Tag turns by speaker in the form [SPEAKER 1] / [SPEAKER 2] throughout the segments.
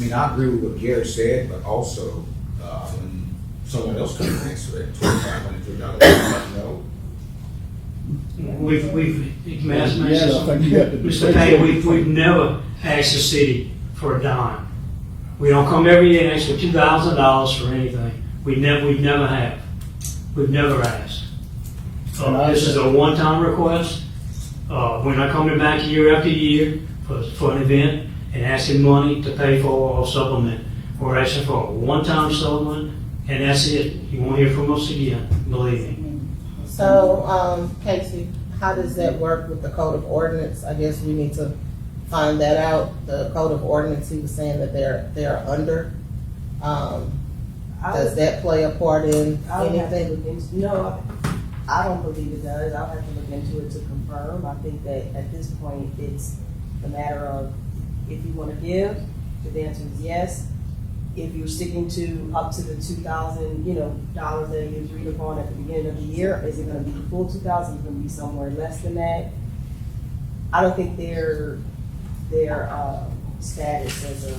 [SPEAKER 1] mean, I agree with what Gary said, but also, uh, when someone else comes and answers it, twenty-five hundred to a dollar, you know,
[SPEAKER 2] We've, we've, Mass-
[SPEAKER 3] Yes, I think you have to do
[SPEAKER 2] Mr. Payne, we've, we've never asked the city for a dime. We don't come every year and ask for two thousand dollars for anything. We never, we never have. We've never asked.
[SPEAKER 3] And
[SPEAKER 2] Uh,
[SPEAKER 3] I-
[SPEAKER 2] this is a one-time request. Uh, we're not coming back year after year for, for an event and asking money to pay for a supplement. We're asking for a one-time supplement, and that's it. You won't hear from us again, believe me.
[SPEAKER 4] So, um, Casey, how does that work with the code of ordinance? I guess we need to find that out. The code of ordinance, he was saying that they're, they're under. Um,
[SPEAKER 5] I
[SPEAKER 4] does
[SPEAKER 5] would,
[SPEAKER 4] that play a part in
[SPEAKER 5] I would have to
[SPEAKER 4] anything?
[SPEAKER 5] look into, no, I don't believe it does. I'll have to look into it to confirm. I think that at this point, it's a matter of if you wanna give, if the answer is yes. If you're sticking to up to the two thousand, you know, dollars that you agreed upon at the beginning of the year, is it gonna be the full two thousand? Is it gonna be somewhere less than that? I don't think their, their, uh, status as a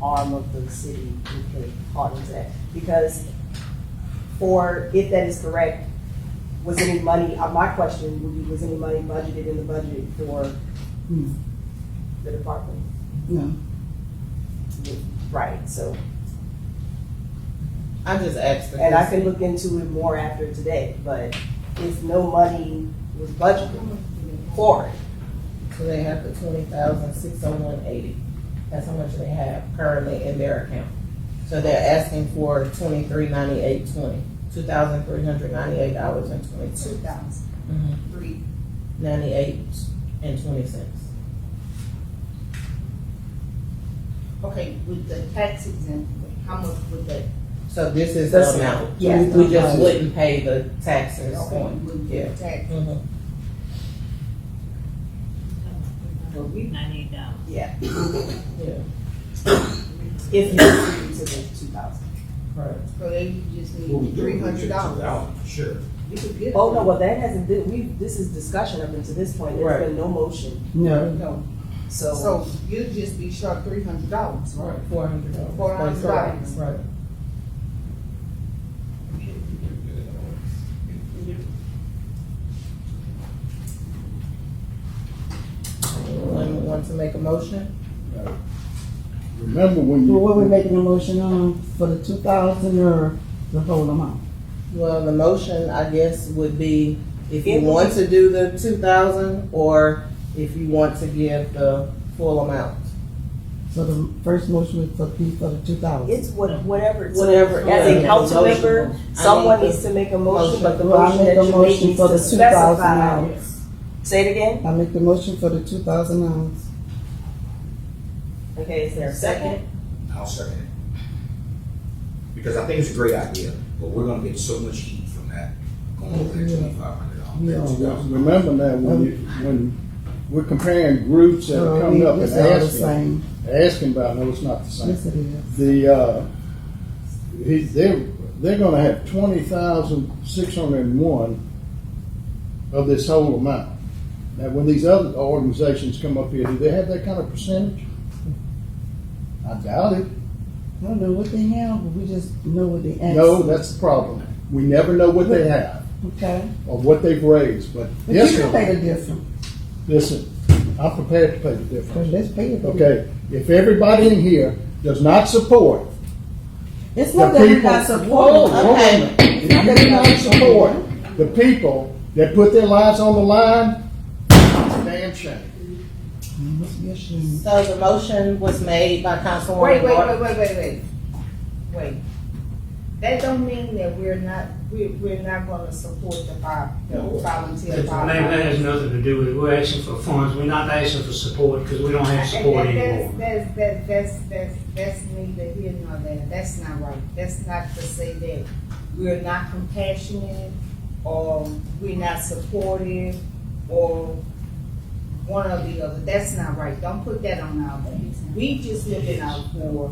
[SPEAKER 5] arm of the city would play part into that. Because or if that is correct, was any money, uh, my question would be, was any money budgeted in the budget for Hmm.
[SPEAKER 6] No.
[SPEAKER 5] the department?
[SPEAKER 6] No.
[SPEAKER 5] Right, so,
[SPEAKER 4] I just asked.
[SPEAKER 5] and I can look into it more after today, but if no money was budgeted for it,
[SPEAKER 4] So they have the twenty thousand, six oh one eighty. That's how much they have currently in their account. So they're asking for twenty-three ninety-eight twenty, two thousand three hundred ninety-eight dollars and
[SPEAKER 7] two
[SPEAKER 4] twenty-two.
[SPEAKER 7] thousand three.
[SPEAKER 4] Ninety-eight and twenty cents.
[SPEAKER 7] Okay, with the tax exempt, how much would that?
[SPEAKER 4] So this is
[SPEAKER 5] That's
[SPEAKER 4] the amount.
[SPEAKER 5] yeah.
[SPEAKER 4] We- We just wouldn't pay the taxes
[SPEAKER 7] Okay,
[SPEAKER 4] on.
[SPEAKER 7] Would
[SPEAKER 4] Yeah.
[SPEAKER 7] the tax?
[SPEAKER 4] Mhm.
[SPEAKER 7] But we,
[SPEAKER 8] Ninety-eight dollars.
[SPEAKER 5] yeah,
[SPEAKER 4] Yeah,
[SPEAKER 5] if you agreed to the two thousand.
[SPEAKER 4] right.
[SPEAKER 7] so they just
[SPEAKER 1] what we
[SPEAKER 7] need
[SPEAKER 1] do, we
[SPEAKER 7] three
[SPEAKER 1] get
[SPEAKER 7] hundred
[SPEAKER 1] two
[SPEAKER 7] dollars.
[SPEAKER 1] thousand, sure.
[SPEAKER 7] You could get.
[SPEAKER 5] Oh, no, well, that hasn't been, we, this is discussion up until this point, there's been no motion,
[SPEAKER 6] No.
[SPEAKER 7] No,
[SPEAKER 5] so.
[SPEAKER 7] so you'd just be short three hundred dollars, right?
[SPEAKER 4] Four hundred dollars.
[SPEAKER 7] Four hundred dollars.
[SPEAKER 4] Right. Anyone want to make a motion?
[SPEAKER 3] Remember when you.
[SPEAKER 6] Well, what we making a motion on for the two thousand or the whole amount?
[SPEAKER 4] Well, the motion, I guess, would be if you want to do the two thousand or if you want to give the full amount.
[SPEAKER 6] So the first motion was for the, for the two thousand.
[SPEAKER 5] It's what- whatever. it's-
[SPEAKER 4] Whatever,
[SPEAKER 5] As
[SPEAKER 4] yeah.
[SPEAKER 5] a council member, someone
[SPEAKER 4] I need
[SPEAKER 5] needs to make a motion, but the
[SPEAKER 6] Well, I
[SPEAKER 5] motion
[SPEAKER 6] make
[SPEAKER 5] that
[SPEAKER 6] a
[SPEAKER 5] you make
[SPEAKER 6] motion
[SPEAKER 5] needs
[SPEAKER 6] for
[SPEAKER 5] to
[SPEAKER 6] the
[SPEAKER 5] specify.
[SPEAKER 6] $2,000.
[SPEAKER 5] Say it again.
[SPEAKER 6] I make the motion for the two thousand dollars.
[SPEAKER 5] Okay, is there a second?
[SPEAKER 1] I'll second it. Because I think it's a great idea, but we're gonna get so much heat from that, going over that twenty-five hundred
[SPEAKER 3] No,
[SPEAKER 1] dollars, two thousand.
[SPEAKER 3] Remember that when you, when we're comparing groups that are coming up and
[SPEAKER 6] Uh, It's all the
[SPEAKER 3] asking,
[SPEAKER 6] same.
[SPEAKER 3] asking about, no, it's not the
[SPEAKER 6] Yes,
[SPEAKER 3] same.
[SPEAKER 6] it is.
[SPEAKER 3] The, uh, he, they're, they're gonna have twenty thousand six hundred and one of this whole amount. Now, when these other organizations come up here, do they have that kind of percentage? I doubt it.
[SPEAKER 6] I don't know what they have, but we just know what they asked.
[SPEAKER 3] No, that's the problem. We never know what they have
[SPEAKER 6] Okay.
[SPEAKER 3] or what they've raised, but
[SPEAKER 6] But
[SPEAKER 3] this
[SPEAKER 6] you can pay
[SPEAKER 3] one,
[SPEAKER 6] the difference.
[SPEAKER 3] listen, I'm prepared to pay the difference.
[SPEAKER 6] So let's pay it.
[SPEAKER 3] Okay, if everybody in here does not support,
[SPEAKER 6] It's
[SPEAKER 3] the
[SPEAKER 6] not that we're
[SPEAKER 3] people.
[SPEAKER 6] not
[SPEAKER 3] Whoa,
[SPEAKER 6] supporting.
[SPEAKER 3] whoa, wait a minute. If you do not support the people that put their lives on the line, it's a damn shame.
[SPEAKER 6] Must be ashamed.
[SPEAKER 4] So the motion was made by
[SPEAKER 7] Wait,
[SPEAKER 4] Councilwoman
[SPEAKER 7] wait, wait,
[SPEAKER 4] Norton.
[SPEAKER 7] wait, wait, wait, wait. That don't mean that we're not, we're, we're not gonna support the fire, the volunteer
[SPEAKER 2] That that
[SPEAKER 7] fire.
[SPEAKER 2] has nothing to do with, it. we're asking for funds, we're not asking for support, because we don't have support anymore.
[SPEAKER 7] That's, that's, that's, that's, that's neither here nor there, that's not right, that's not to say that we're not compassionate, or we're not supportive, or one or the other, that's not right, don't put that on our back. We just looking out for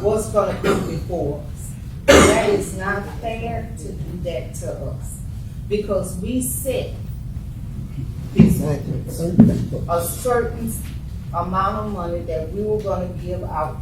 [SPEAKER 7] what's gonna come before us. That is not fair to do that to us, because we set these
[SPEAKER 6] Exactly. So,
[SPEAKER 7] a certain amount of money that we were gonna give out